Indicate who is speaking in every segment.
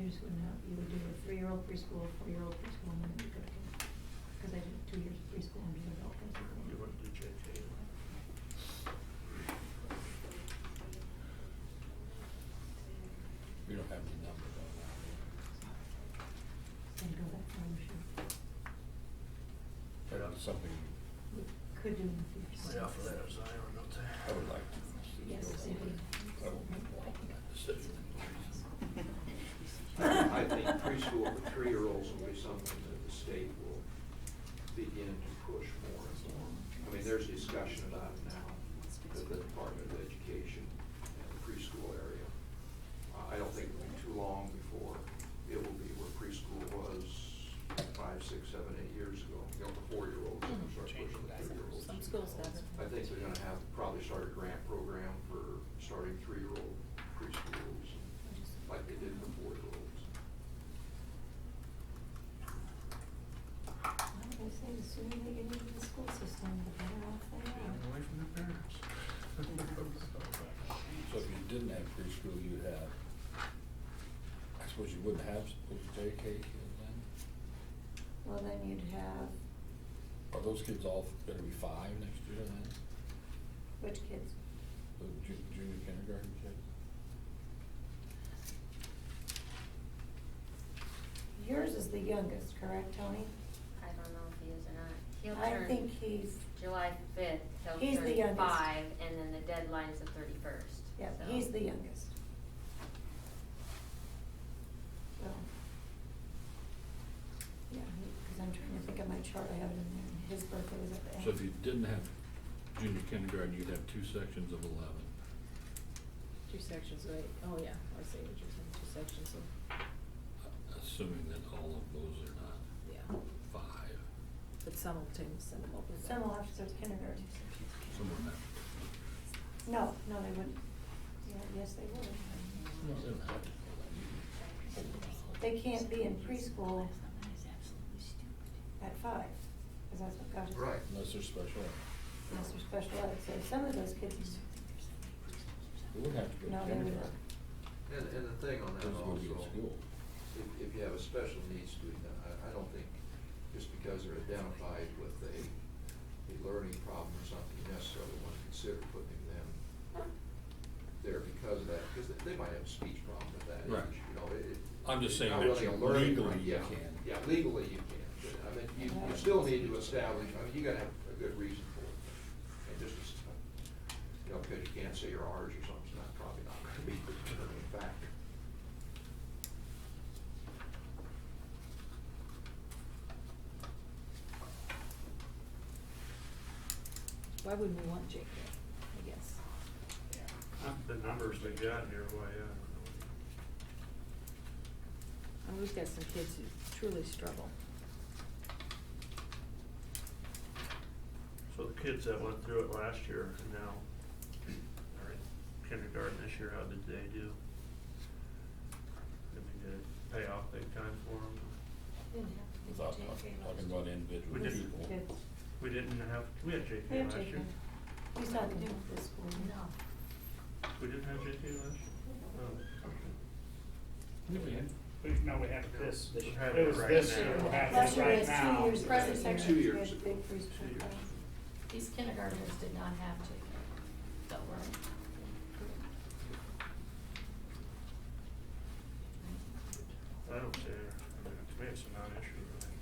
Speaker 1: you would do a three-year-old preschool, four-year-old preschool, and then you go to kindergarten. Because I did two years of preschool and an adult
Speaker 2: You
Speaker 1: preschool.
Speaker 2: want to do JK?
Speaker 3: We don't have any number though now.
Speaker 1: And go that far, we should,
Speaker 3: But it's something
Speaker 1: we could do in the future.
Speaker 2: Yeah, for that, as I don't know.
Speaker 3: I would like to see go
Speaker 1: Yes, if
Speaker 3: forward.
Speaker 1: we-
Speaker 3: I won't be involved in that decision.
Speaker 4: I think preschool for three-year-olds will be something that the state will begin to push more and more. I mean, there's discussion about it now, that the Department of Education and the preschool area. Uh, I don't think it'll be too long before it will be where preschool was five, six, seven, eight years ago. You know, the four-year-olds are gonna start pushing the three-year-olds.
Speaker 5: Some schools have it.
Speaker 4: I think they're gonna have, probably start a grant program for starting three-year-old preschools, like they did for four-year-olds.
Speaker 1: Well, I say the sooner they get into the school system, the better off they are.
Speaker 2: away from their parents.
Speaker 3: So if you didn't have preschool, you'd have, I suppose you wouldn't have, those JK kids then?
Speaker 1: Well, then you'd have,
Speaker 3: Are those kids all gonna be five next year then?
Speaker 1: which kids?
Speaker 3: The ju- junior kindergarten kids?
Speaker 1: Yours is the youngest, correct, Tony?
Speaker 6: I don't know if he is or not. He'll
Speaker 1: I
Speaker 6: turn
Speaker 1: think he's,
Speaker 6: July fifth, he'll
Speaker 1: He's the
Speaker 6: turn
Speaker 1: youngest.
Speaker 6: five, and then the deadline is the thirty-first.
Speaker 1: yeah, he's the youngest. So. Yeah, because I'm trying to think of my chart, I have it in there, and his birthday was at the end.
Speaker 7: So if you didn't have junior kindergarten, you'd have two sections of eleven.
Speaker 5: Two sections of eight. Oh yeah, I see what you're saying, two sections of,
Speaker 7: Assuming that all of those are not
Speaker 5: yeah,
Speaker 7: five,
Speaker 5: but some will take some will be
Speaker 1: Some
Speaker 5: back.
Speaker 1: will have to start kindergarten.
Speaker 7: somewhere in that.
Speaker 1: No, no, they wouldn't. Yeah, yes, they would.
Speaker 3: No, they don't have to go that deep. Hold on.
Speaker 1: They can't be in preschool at five, because that's what God is.
Speaker 4: Right.
Speaker 3: Unless they're special. ed.
Speaker 1: Unless they're special ed, so some of those kids,
Speaker 3: They wouldn't have to go
Speaker 1: No,
Speaker 3: to
Speaker 1: they wouldn't.
Speaker 3: kindergarten.
Speaker 4: And, and the thing on Oh, that
Speaker 3: Those would be in
Speaker 4: also,
Speaker 3: school.
Speaker 4: if, if you have a special needs student, I, I don't think just because they're identified with a, a learning problem or something, you necessarily want to consider putting them there because of that, because they, they might have a speech problem at that
Speaker 7: Right.
Speaker 4: age, you know, it. it-
Speaker 7: I'm just saying
Speaker 4: not
Speaker 7: that
Speaker 4: really
Speaker 7: you-
Speaker 4: a learning
Speaker 7: legally
Speaker 4: problem,
Speaker 7: you
Speaker 4: yeah.
Speaker 7: can.
Speaker 4: Yeah, legally you can, but I mean, you, you still need to establish, I mean, you gotta have a good reason for it. And just, as- you know, because you can't say you're ours or something's not, probably not gonna be the determining factor.
Speaker 5: Why wouldn't we want JK, I guess?
Speaker 2: The numbers they got here, why, yeah, I
Speaker 5: And we've got some kids who truly struggle.
Speaker 2: don't know. So the kids that went through it last year and now are in kindergarten this year, how did they do? Did we get a payoff big time for them?
Speaker 1: didn't have to be.
Speaker 3: Without talking,
Speaker 1: JK
Speaker 3: talking
Speaker 1: last
Speaker 3: about
Speaker 1: year.
Speaker 3: individual
Speaker 2: We did.
Speaker 3: people.
Speaker 1: Kids.
Speaker 2: We didn't have, we had
Speaker 1: They
Speaker 2: JK
Speaker 1: have
Speaker 2: last year.
Speaker 1: JK. We saw the do with this school.
Speaker 6: No.
Speaker 2: We didn't have JK last year? Oh, okay.
Speaker 8: We, no, we have this.
Speaker 2: We have
Speaker 8: It was
Speaker 2: right
Speaker 8: this
Speaker 2: now.
Speaker 8: year, we're having
Speaker 1: Last
Speaker 8: it
Speaker 1: year we had
Speaker 8: right
Speaker 1: two
Speaker 8: now.
Speaker 1: years. ago,
Speaker 4: Present
Speaker 1: second
Speaker 4: Two
Speaker 1: year we
Speaker 4: years
Speaker 1: had a
Speaker 4: ago.
Speaker 1: Big preschool.
Speaker 4: Two years.
Speaker 1: class.
Speaker 9: These kindergartners did not have to, that were.
Speaker 2: I don't care. I mean, to me, it's a non-issue. really.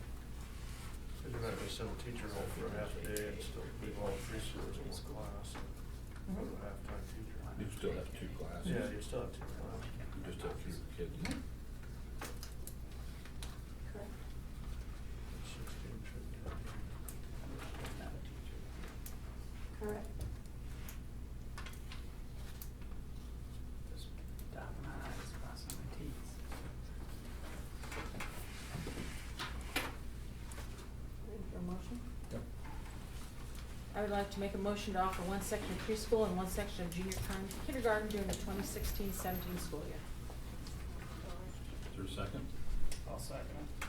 Speaker 2: Cause you might be some teacher home for a half a day and still leave all three schools in one class. and Put a half-time teacher.
Speaker 3: You still have two classes.
Speaker 2: Yeah, you still have two classes.
Speaker 3: You just have fewer kids.
Speaker 1: Mm-hmm. Correct.
Speaker 2: Sixteen should be okay.
Speaker 1: Correct.
Speaker 5: Ready for a motion?
Speaker 3: Yep.
Speaker 5: I would like to make a motion to offer one section of preschool and one section of junior con- kindergarten during the 2016-17 school year.
Speaker 7: Is there a second?
Speaker 8: I'll second it.